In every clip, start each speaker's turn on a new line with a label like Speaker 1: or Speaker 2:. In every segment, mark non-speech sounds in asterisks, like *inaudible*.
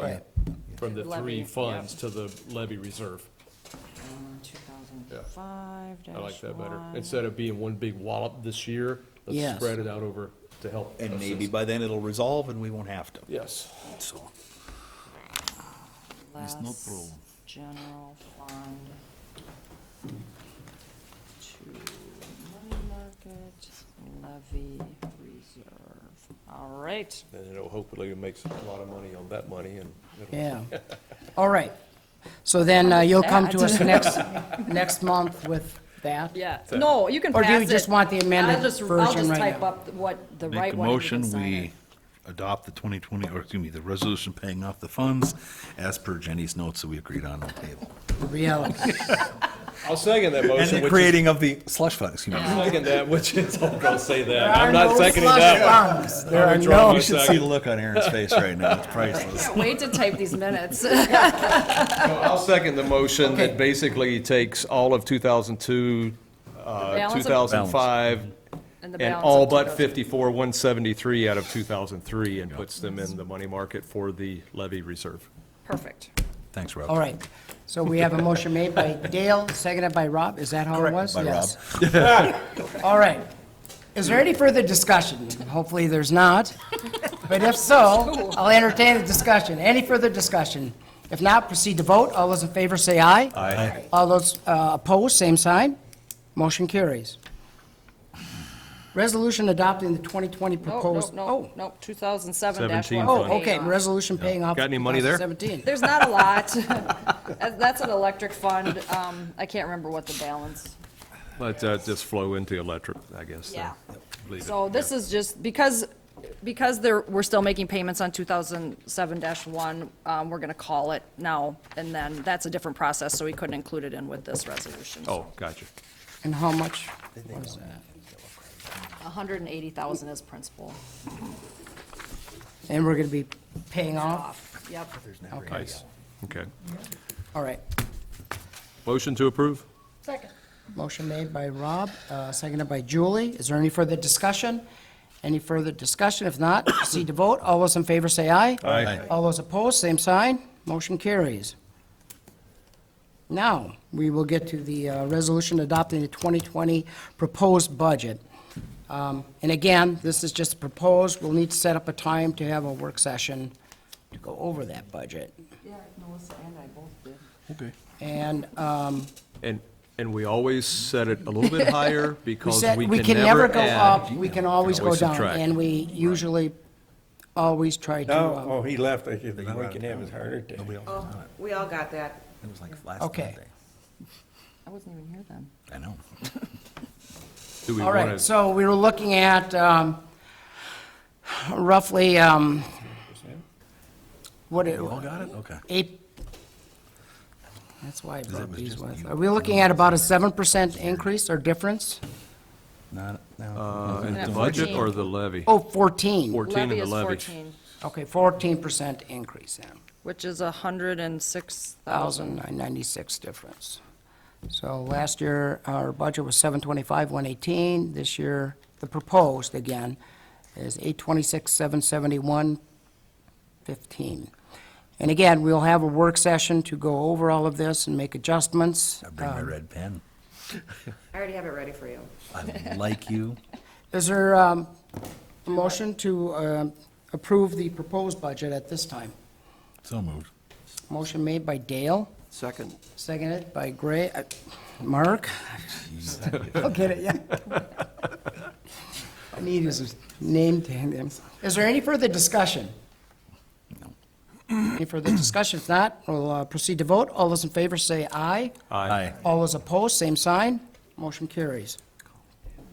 Speaker 1: Right.
Speaker 2: from the
Speaker 3: Levy,
Speaker 2: three
Speaker 3: yep.
Speaker 2: funds to the levy reserve.
Speaker 3: Two thousand five dash
Speaker 2: I
Speaker 3: one.
Speaker 2: like that better. Instead of being one big wallop this year, let's
Speaker 1: Yes.
Speaker 2: spread it out over to help.
Speaker 4: And maybe
Speaker 2: assist.
Speaker 4: by then it'll resolve and we won't have to.
Speaker 2: Yes.
Speaker 1: So,
Speaker 3: Less
Speaker 1: It's no problem.
Speaker 3: general fund to money market levy reserve. All right,
Speaker 2: And it'll hopefully make a lot of money on that money and. it'll-
Speaker 1: yeah. All right. So then uh, you'll come to us
Speaker 3: That-
Speaker 1: next, next month with that?
Speaker 3: yeah. No, you can
Speaker 1: Or
Speaker 3: pass
Speaker 1: do
Speaker 3: it.
Speaker 1: you just want the amended
Speaker 3: I'll just- I'll
Speaker 1: version
Speaker 3: just
Speaker 1: right
Speaker 3: type
Speaker 1: now?
Speaker 3: up what the
Speaker 5: Make
Speaker 3: right
Speaker 5: a
Speaker 3: one. and you can
Speaker 5: motion,
Speaker 3: sign
Speaker 5: we
Speaker 3: it.
Speaker 5: adopt the 2020, or excuse me, the resolution paying off the funds as per Jenny's notes that we agreed on on the table.
Speaker 1: Reality.
Speaker 2: I'll second that
Speaker 4: And
Speaker 2: motion,
Speaker 4: the
Speaker 2: which is,
Speaker 4: creating of the slush fund, excuse me.
Speaker 2: I'll second that, which is, *laughs* I'm gonna say
Speaker 1: There
Speaker 2: that.
Speaker 1: are
Speaker 2: I'm not
Speaker 1: no
Speaker 2: seconding
Speaker 1: slush
Speaker 2: that one.
Speaker 1: funds. There are
Speaker 2: withdraw
Speaker 1: no,
Speaker 2: my
Speaker 5: You should see the look on Aaron's face right now, it's priceless.
Speaker 3: Can't wait to type these minutes. *laughs*
Speaker 2: No, I'll second the motion that basically takes all of 2002, uh,
Speaker 3: balance of-
Speaker 2: 2005,
Speaker 3: And the
Speaker 2: and
Speaker 3: balance
Speaker 2: all
Speaker 3: of
Speaker 2: but
Speaker 3: 2000.
Speaker 2: 54, 173 out of 2003, and puts them in the money market for the levy reserve.
Speaker 3: Perfect.
Speaker 5: Thanks,
Speaker 1: all
Speaker 5: Rob.
Speaker 1: right. So we have a motion
Speaker 2: *laughs*
Speaker 1: made by Dale, seconded by Rob. Is that how it was?
Speaker 5: By Rob.
Speaker 1: Yes. *laughs* All right. Is there any further discussion? Hopefully, there's not. But
Speaker 3: *laughs*
Speaker 1: if so, I'll entertain the discussion. Any further discussion? If not, proceed to vote. All those in favor say aye.
Speaker 5: Aye.
Speaker 1: All those uh, opposed, same sign. Motion carries. Resolution adopting the 2020
Speaker 3: No,
Speaker 1: proposed.
Speaker 3: no, no, no, 2007 dash
Speaker 2: 17
Speaker 3: one.
Speaker 1: Oh,
Speaker 2: fund.
Speaker 1: oh, okay, resolution paying off.
Speaker 2: Got any money there?
Speaker 1: 2017.
Speaker 3: There's not a lot. *laughs* That- That's an electric fund. Um, I can't remember what the balance.
Speaker 2: Let that uh, just flow into electric, I guess. then.
Speaker 3: Yeah.
Speaker 2: Leave it.
Speaker 3: So this is just, because, because there, we're still making payments on two thousand seven dash one, um, we're gonna call it now. And then that's a different process, so we couldn't include it in with this resolution.
Speaker 2: Oh, gotcha.
Speaker 1: And how much?
Speaker 3: A hundred and eighty thousand is principal
Speaker 1: And we're going to be paying off?
Speaker 3: off. Yep.
Speaker 1: Okay,
Speaker 2: Nice. Okay.
Speaker 1: all right.
Speaker 2: Motion to approve?
Speaker 1: Motion made by Rob, uh, seconded by Julie. Is there any further discussion? Any further discussion? If not, proceed to vote. All those in favor say aye.
Speaker 5: Aye.
Speaker 1: All those opposed, same sign. Motion carries. Now, we will get to the uh, resolution adopting the 2020 proposed budget. Um, And again, this is just proposed. We'll need to set up a time to have a work session to go over that budget.
Speaker 3: Yeah, Melissa and I both did.
Speaker 4: Okay.
Speaker 1: And um,
Speaker 2: And, and we always set it a little bit higher
Speaker 1: We
Speaker 2: because
Speaker 1: said,
Speaker 2: we can never
Speaker 1: go
Speaker 2: add.
Speaker 1: up, we can always go
Speaker 2: always
Speaker 1: down,
Speaker 2: subtract.
Speaker 1: and we usually always try to,
Speaker 6: No,
Speaker 1: uh,
Speaker 6: oh, he left, I said, now we can have his heart attack.
Speaker 5: Nobody else
Speaker 7: Oh,
Speaker 5: got it.
Speaker 7: we all got that.
Speaker 5: It was like last
Speaker 1: Okay.
Speaker 5: Monday.
Speaker 3: I wasn't even here then.
Speaker 5: I know.
Speaker 2: Do we
Speaker 1: all
Speaker 2: want
Speaker 1: right,
Speaker 2: to,
Speaker 1: so we were looking at um, roughly, um, what, it-
Speaker 5: You all got it? Okay.
Speaker 1: eight, that's why I brought
Speaker 5: was
Speaker 1: these
Speaker 5: just
Speaker 1: with.
Speaker 5: you.
Speaker 1: Are we looking at about a 7% increase or difference?
Speaker 5: Not,
Speaker 2: uh, in
Speaker 5: no.
Speaker 2: the
Speaker 3: At
Speaker 2: budget
Speaker 3: 14.
Speaker 2: or the levy?
Speaker 1: Oh, 14,
Speaker 2: 14 in the
Speaker 3: is
Speaker 2: levy.
Speaker 3: fourteen,
Speaker 1: okay, 14% increase then.
Speaker 3: which is a hundred and six thousand.
Speaker 1: 1,996 difference. So last year, our budget was 725, 118. This year, the proposed, again, is 826, 771, 15. And again, we'll have a work session to go over all of this and make adjustments.
Speaker 5: I bring my
Speaker 1: Um,
Speaker 5: red pen.
Speaker 7: I already have it ready for you.
Speaker 5: I like you.
Speaker 1: Is there um, a motion to um, approve the proposed budget at this time?
Speaker 5: So moved.
Speaker 1: Motion made by Dale,
Speaker 6: Second.
Speaker 1: seconded by Gray, uh, Mark? I'll get it, yeah. I need his name to hand him. Is there any further discussion? Any further discussion? If not, we'll uh, proceed to vote. All those in favor say aye.
Speaker 2: Aye.
Speaker 1: All those opposed, same sign. Motion carries.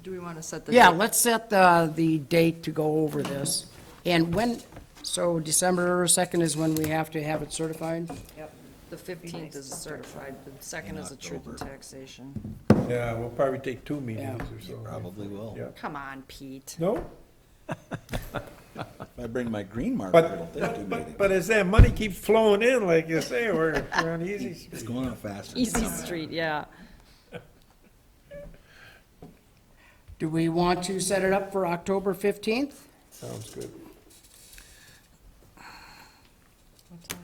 Speaker 3: Do we want to set the?
Speaker 1: Yeah,
Speaker 3: date?
Speaker 1: let's set the, the date to go over this. And when, so December 2nd is when we have to have it certified?
Speaker 3: Yep. The fifteenth is certified, the second is a truth in taxation.
Speaker 6: Yeah, we'll probably take two meetings
Speaker 1: Yeah.
Speaker 6: or so.
Speaker 5: Probably will.
Speaker 6: Yeah.
Speaker 3: Come on, Pete.
Speaker 6: No,
Speaker 5: If I bring my green marker, it'll
Speaker 6: but,
Speaker 5: take two
Speaker 6: but,
Speaker 5: meetings.
Speaker 6: but- but as that money keeps flowing in, like you say, we're, we're
Speaker 5: *laughs*
Speaker 6: on easy street.
Speaker 5: It's going up faster. than
Speaker 3: Easy
Speaker 5: coming.
Speaker 3: street, yeah.
Speaker 1: Do we want to set it up for October 15th?
Speaker 6: Sounds good.